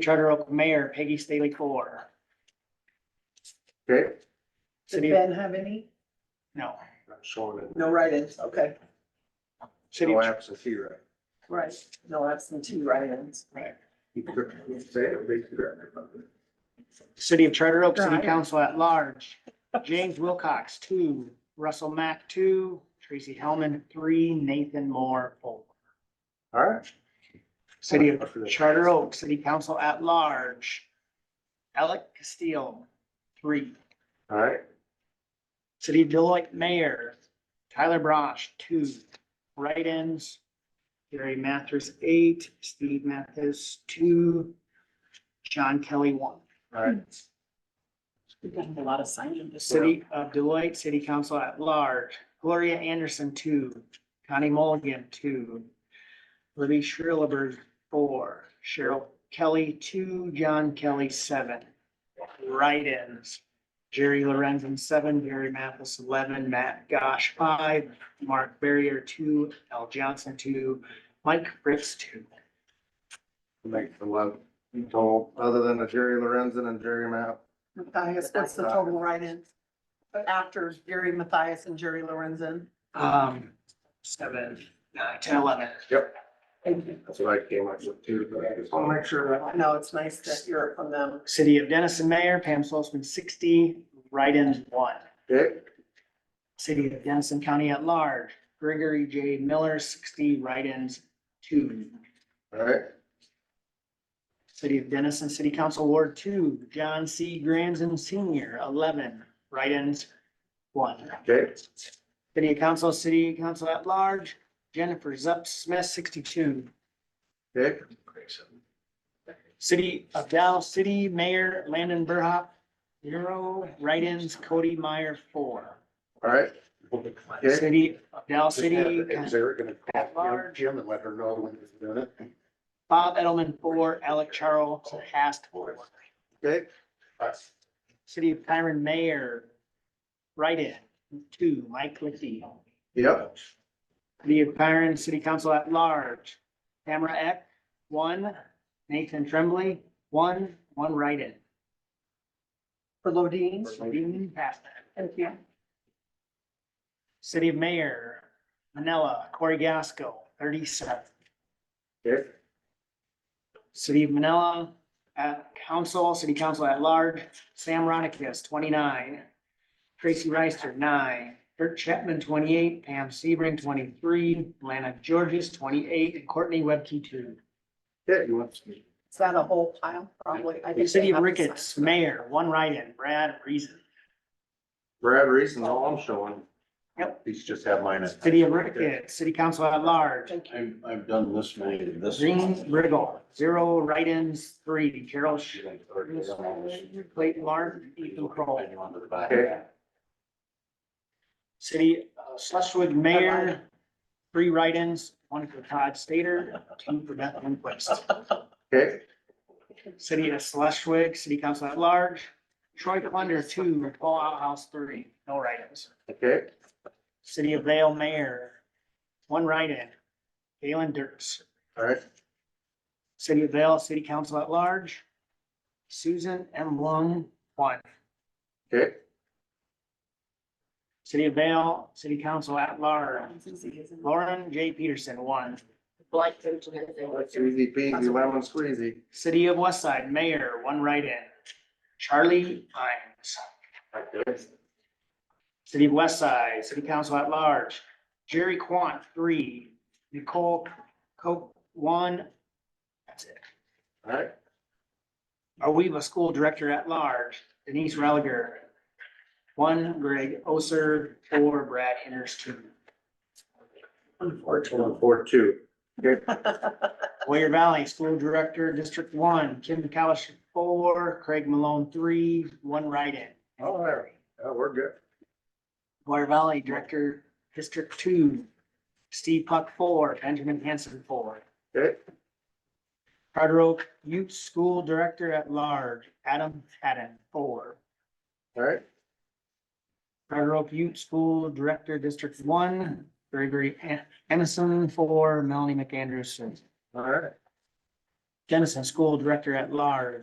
Charter Oak Mayor Peggy Staley Core. Okay, Did City- Ben have any? No, showing it. No write-ins, okay, city, No absentee, right? right, no absentee write-ins. right. You could Say it, basically. City of Charter Oak, City Right. Council at Large, James Wilcox, two, Russell Mack, two, Tracy Hellman, three, Nathan Moore, four. All right. City of Charter Oak, City Council at Large, Alec Castillo, three. All right, City of Deloitte Mayor, Tyler Brosh, two. Write-ins, Gary Mathis, eight, Steve Mathis, two, John Kelly, one. all right. We've got a lot of sign-in this. City of Deloitte, City Council at Large, Gloria Anderson, two, Connie Mulligan, two, Libby Shrilberg, four, Cheryl Kelly, two, John Kelly, seven. Write-ins, Jerry Lorenzen, seven, Gary Mathis, eleven, Matt Gosh, five, Mark Barrier, two, Al Johnson, two, Mike Fritz, two. Make the love. Total, other than the Jerry Lorenzen and Jerry Map. Matthias, what's the total write-ins? After Jerry Matthias and Jerry Lorenzen. Um, seven, nine, ten, eleven. That's what I came up with too, but I just want to make sure that. I know, it's nice to hear it from them. City of Denison Mayor, Pam Solzman, sixty, write-ins, one. Okay, City of Denison County at large, Gregory J. Miller, sixty, write-ins, two. all right, City of Denison City Council Ward Two, John C. Granson Senior, eleven, write-ins, one. okay, City Council, City Council at large, Jennifer Zup Smith, sixty-two. okay, City of Dow City Mayor Landon Burhoff, zero, write-ins, Cody Meyer, four. all right. Okay. City of Dow Just have- City. Is Eric gonna At call large. Jim and let her know when he's doing it? Bob Edelman, four, Alec Charles, Hast, four. Okay. City of Kyron Mayor, write-in, two, Mike Licky. Yep, City of Kyron City Council at Large, Tamara Eck, one, Nathan Tremblay, one, one write-in. For Lodeen. Dean Pastor. Thank you. City of Mayor, Manila, Corey Gasco, thirty-seven. okay, City of Manila, at council, city council at large, Sam Ronikis, twenty-nine. Tracy Reister, nine. Bert Chapman, twenty-eight. Pam Sebring, twenty-three. Lana Georges, twenty-eight. And Courtney Webke, two. okay, you want? Is that a whole pile? Probably. I think City they of have to sign. Ricketts, mayor, one write-in, Brad Reason. Brad Reason's all I'm showing. Yep. He's just had mine. at- City of Ricketts, city council at large, Thank you. I've, I've done this many, of this. Green Riggle, zero write-ins, three. Carol Sh- Clayton Martin, Ethan Kroll. Okay. City of Schleswig Mayor, three write-ins, one for Todd Stater, two for Beth Lindquist. Okay, City of Schleswig, City Council at Large, Troy Klunder, two, Paul Outhouse, three, no write-ins. okay, City of Vale Mayor, one write-in, Galen Dirks. all right, City of Vale, City Council at Large, Susan M. Lung, one. okay, City of Vale, City Council at Large, Susie, Lauren J. Peterson, one. That's easy peasy, lemon squeezy. City of West Side Mayor, one write-in, Charlie Hines. City of West Side, City Council at Large, Jerry Quant, three, Nicole Coke, one. That's it. All right, Arweva School Director at Large, Denise Religer, one, Greg Oser, four, Brad Henners, two. One, four, two. Warrior Valley School Director, District One, Kim McCallish, four, Craig Malone, three, one write-in. All right, yeah, Oh, we're good. Water Valley Director, District Two, Steve Puck, four, Benjamin Hanson, four. Okay, Charter Oak Youth School Director at Large, Adam Haddon, four. all right, Charter Oak Youth School Director, District One, Gregory An- Emerson, four, Melanie McAndrews, six. all right. Dennison School Director at Large.